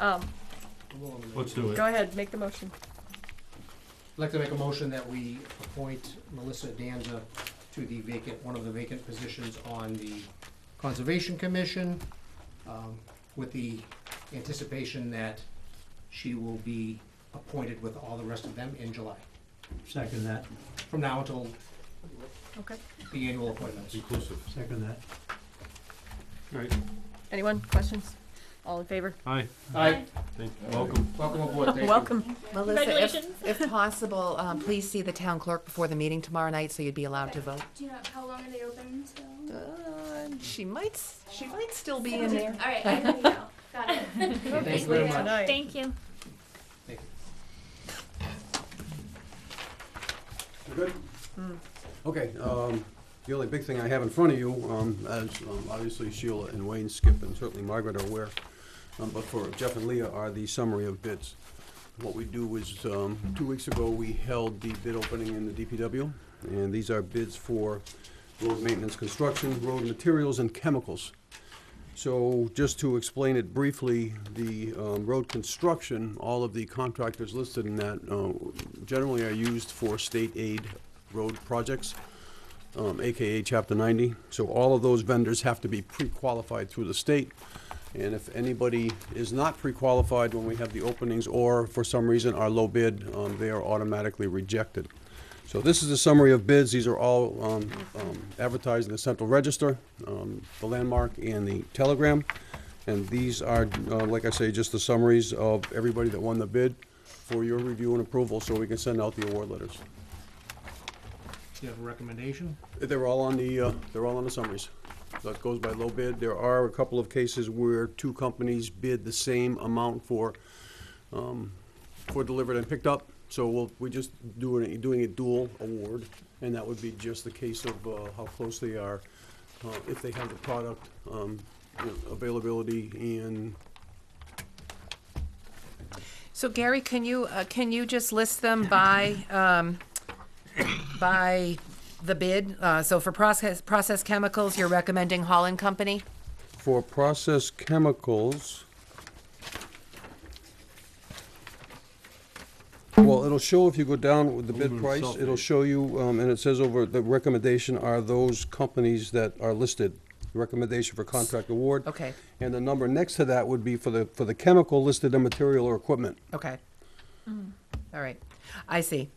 Um, Let's do it. go ahead, make the motion. I'd like to make a motion that we appoint Melissa Danza to the vacant, one of the vacant positions on the Conservation Commission, um, with the anticipation that she will be appointed with all the rest of them in July, Second that, from now until Okay. the annual appointments. Inclusive. second that. Right. Anyone? Questions? All in favor? Hi. Aye, Thank you. Welcome. welcome aboard, thank you. Welcome. Melissa, Congratulations. if, if possible, um, please see the town clerk before the meeting tomorrow night so you'd be allowed to vote. Do you know how long are they open till? Uh, She might, s- she might still be in there. All right, I know now. Got it. Thank you very much. Tonight. Thank you. Thank you. Good? Okay, um, the only big thing I have in front of you, um, as um, obviously Sheila and Wayne, Skip, and certainly Margaret are aware, um, but for Jeff and Leah are the summary of bids. What we do is, um, two weeks ago, we held the bid opening in the DPW, and these are bids for road maintenance, construction, road materials, and chemicals. So just to explain it briefly, the um, road construction, all of the contractors listed in that uh, generally are used for state aid road projects, um, AKA Chapter 90. So all of those vendors have to be pre-qualified through the state. And if anybody is not pre-qualified when we have the openings or for some reason are low bid, um, they are automatically rejected. So this is a summary of bids. These are all um, um, advertised in the Central Register, um, the Landmark, and the Telegram. And these are, uh, like I say, just the summaries of everybody that won the bid for your review and approval, so we can send out the award letters. Do you have a recommendation? They're all on the, uh, they're all on the summaries. So it goes by low bid. There are a couple of cases where two companies bid the same amount for, um, for delivered and picked up. So we'll, we just doing, it- doing a dual award, and that would be just the case of, uh, how close they are, uh, if they have the product, um, you know, availability and So Gary, can you, uh, can you just list them by, um, by the bid? Uh, so for process, process chemicals, you're recommending Holland Company? for process chemicals. Well, it'll show if you go down with the bid Aluminum price, it'll sulfate. show you, um, and it says over, the recommendation are those companies that are listed. Recommendation for contract award. Okay, And the number next to that would be for the, for the chemical listed in material or equipment. okay. All right, I see.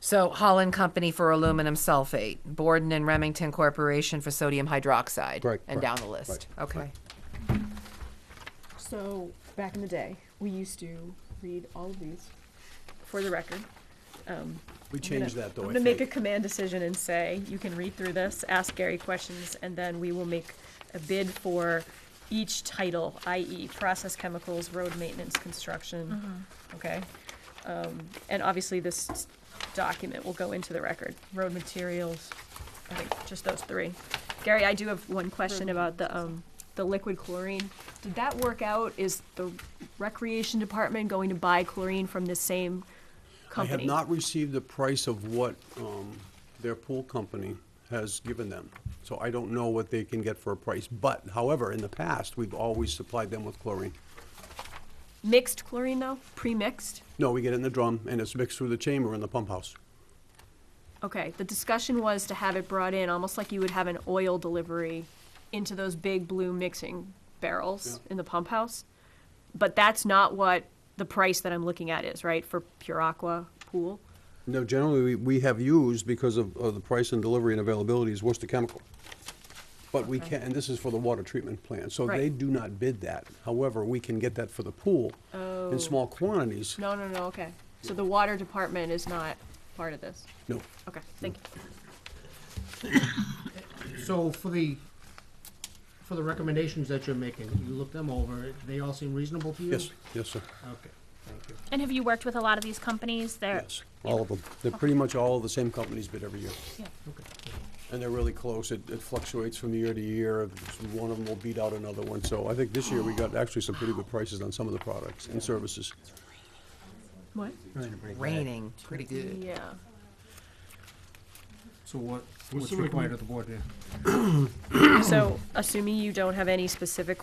So Holland Company for aluminum sulfate, Borden and Remington Corporation for sodium hydroxide. Right, And right, down the list, right, okay. So back in the day, we used to read all of these. For the record. We changed that I'm though, I gonna make a think. command decision and say, you can read through this, ask Gary questions, and then we will make a bid for each title, i.e. process chemicals, road maintenance, construction, Mm-hmm. okay? Um, and obviously this s- document will go into the record, road materials, I think, just those three. Gary, I do have one question about the, um, the liquid chlorine. Did that work out? Is the recreation department going to buy chlorine from the same I have company? not received the price of what, um, their pool company has given them. So I don't know what they can get for a price. But however, in the past, we've always supplied them with chlorine. Mixed chlorine though? Pre-mixed? No, we get it in the drum and it's mixed through the chamber in the pump house. Okay, the discussion was to have it brought in almost like you would have an oil delivery into those big blue mixing barrels in the pump house. But that's not what the price that I'm looking at is, right, for Pure Aqua pool? No, generally, we, we have used because of, of the price and delivery and availability is Worcester Chemical. But we can, and this is for the water treatment plant, so they Right. do not bid that. However, we can get that for the pool Oh. in small quantities. No, no, no, okay. So the water department is not part of this. No, Okay, thank you. So for the, for the recommendations that you're making, you look them over, they all seem reasonable to you? yes, yes, sir, Okay, thank you. And have you worked with a lot of these companies? They're yes, all of them. They're pretty much all the same companies bid every year. Okay. And they're really close. It, it fluctuates from year to year. One of them will beat out another one. So I think this year we got actually some pretty good prices on some of the products and services. What? Raining, pretty good. Yeah. So what, What's what's the required of the board now? So assuming you don't have any specific